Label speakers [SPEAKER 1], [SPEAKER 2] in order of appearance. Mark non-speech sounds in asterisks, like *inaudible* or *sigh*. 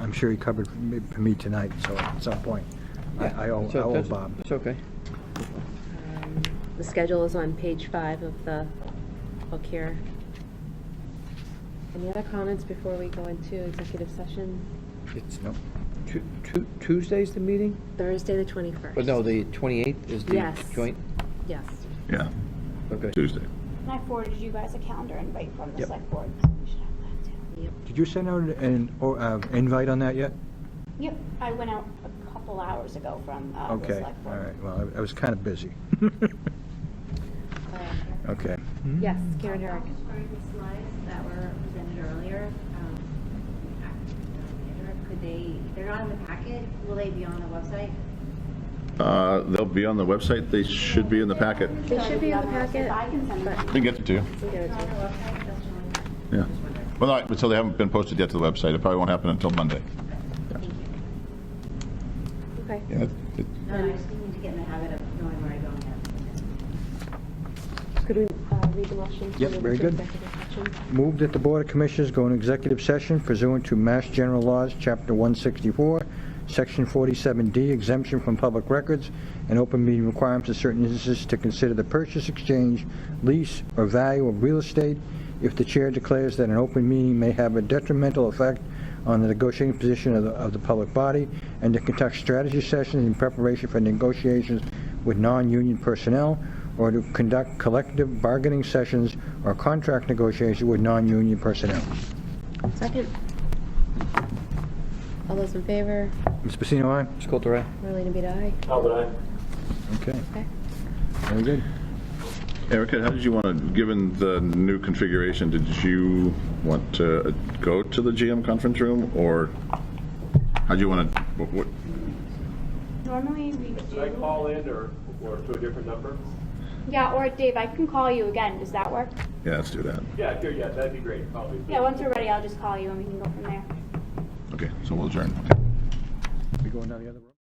[SPEAKER 1] I'm sure he covered me- for me tonight, so at some point, I I owe I
[SPEAKER 2] So
[SPEAKER 1] owe
[SPEAKER 2] that's-
[SPEAKER 1] Bob.
[SPEAKER 2] It's okay.
[SPEAKER 3] The schedule is on page five of the book here. Any other comments before we go into executive session?
[SPEAKER 2] It's
[SPEAKER 1] Nope.
[SPEAKER 2] Tu- Tu- Tuesday's the meeting?
[SPEAKER 3] Thursday, the 21st.
[SPEAKER 2] But no, the 28th is the
[SPEAKER 3] Yes.
[SPEAKER 2] joint?
[SPEAKER 3] Yes.
[SPEAKER 4] Yeah,
[SPEAKER 2] Okay.
[SPEAKER 4] Tuesday.
[SPEAKER 5] And I forwarded you guys a calendar invite from the
[SPEAKER 1] Yep.
[SPEAKER 5] select board, so you should have that too.
[SPEAKER 1] Did you send out an or, uh, invite on that yet?
[SPEAKER 5] Yep, I went out a couple hours ago from uh, the
[SPEAKER 1] Okay,
[SPEAKER 5] select
[SPEAKER 1] all
[SPEAKER 5] board.
[SPEAKER 1] right, well, I- I was kind of busy. *laughs* Okay.
[SPEAKER 3] Yes, Karen Herrick.
[SPEAKER 6] Just for the slides that were presented earlier, um, could they, they're not in the packet, will they be on the website?
[SPEAKER 4] Uh, They'll be on the website, they should be in the packet.
[SPEAKER 3] They should be in the packet,
[SPEAKER 5] I can send it.
[SPEAKER 3] but
[SPEAKER 4] We can get them to you,
[SPEAKER 3] we get it to you.
[SPEAKER 6] On the website, that's on.
[SPEAKER 4] yeah. Well, not, so they haven't been posted yet to the website, it probably won't happen until Monday.
[SPEAKER 3] Okay.
[SPEAKER 4] Yeah, it-
[SPEAKER 6] No, I just need to get in the habit of knowing where I go next.
[SPEAKER 3] Could we uh, read the motion? to
[SPEAKER 1] Yep,
[SPEAKER 3] move
[SPEAKER 1] very
[SPEAKER 3] to
[SPEAKER 1] good.
[SPEAKER 3] executive session?
[SPEAKER 1] Move that the Board of Commissioners go into executive session pursuant to Mass General Laws, Chapter 164, Section 47D, exemption from public records and open meeting requirements in certain instances to consider the purchase, exchange, lease, or value of real estate if the chair declares that an open meeting may have a detrimental effect on the negotiating position of the, of the public body, and to conduct strategy sessions in preparation for negotiations with non-union personnel, or to conduct collective bargaining sessions or contract negotiations with non-union personnel.
[SPEAKER 3] Second. All those in favor?
[SPEAKER 1] Ms. Pacino, aye?
[SPEAKER 2] Sculptor Eye?
[SPEAKER 3] Marlena Bita, aye.
[SPEAKER 1] Okay,
[SPEAKER 3] Okay.
[SPEAKER 1] very good.
[SPEAKER 4] Erica, how did you want to, given the new configuration, did you want to uh, go to the GM conference room, or how do you want to, what, what-
[SPEAKER 5] Normally we
[SPEAKER 7] Should I
[SPEAKER 5] do,
[SPEAKER 7] call in or, or to a different number?
[SPEAKER 5] yeah, or Dave, I can call you again, does that work?
[SPEAKER 4] yeah, let's do that.
[SPEAKER 7] Yeah, sure, yeah, that'd be great, probably.
[SPEAKER 5] Yeah, once we're ready, I'll just call you and we can go from there.
[SPEAKER 4] Okay, so we'll adjourn, okay.
[SPEAKER 1] We going down the other road?